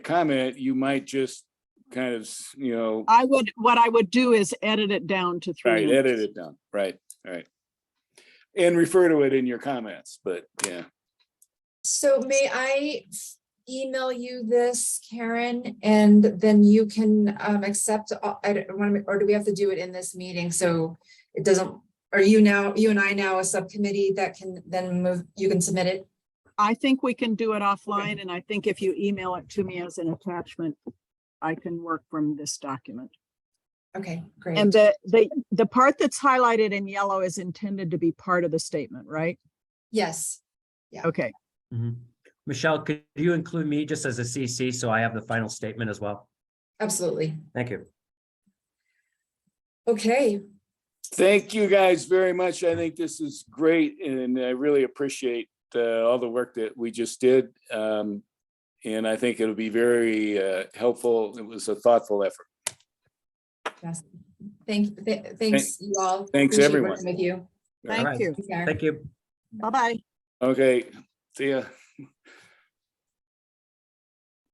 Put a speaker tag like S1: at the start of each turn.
S1: comment, you might just kind of, s- you know,
S2: I would, what I would do is edit it down to three.
S1: right,
S2: minutes.
S1: edit it down, right, right. And refer to it in your comments, but yeah,
S3: So may I email you this, Karen, and then you can um accept, all- I don't want to, or do we have to do it in this meeting? So it doesn't, are you now, you and I now a subcommittee that can then move, you can submit it?
S2: I think we can do it offline and I think if you email it to me as an attachment, I can work from this document.
S3: Okay, great.
S2: And uh, the, the, the part that's highlighted in yellow is intended to be part of the statement, right?
S3: Yes,
S2: Okay,
S4: Mhm. Michelle, could you include me just as a CC so I have the final statement as well?
S3: absolutely.
S4: Thank you.
S3: Okay,
S1: thank you guys very much. I think this is great and I really appreciate uh, all the work that we just did. Um, And I think it'll be very uh, helpful. It was a thoughtful effort.
S3: yes. Thank, th- thanks you all.
S1: Thanks,
S3: Appreciate
S1: everyone.
S3: working With you.
S1: All
S2: thank
S4: right.
S2: you.
S3: Thanks, Karen.
S4: Thank you.
S2: Bye-bye.
S1: Okay, see ya.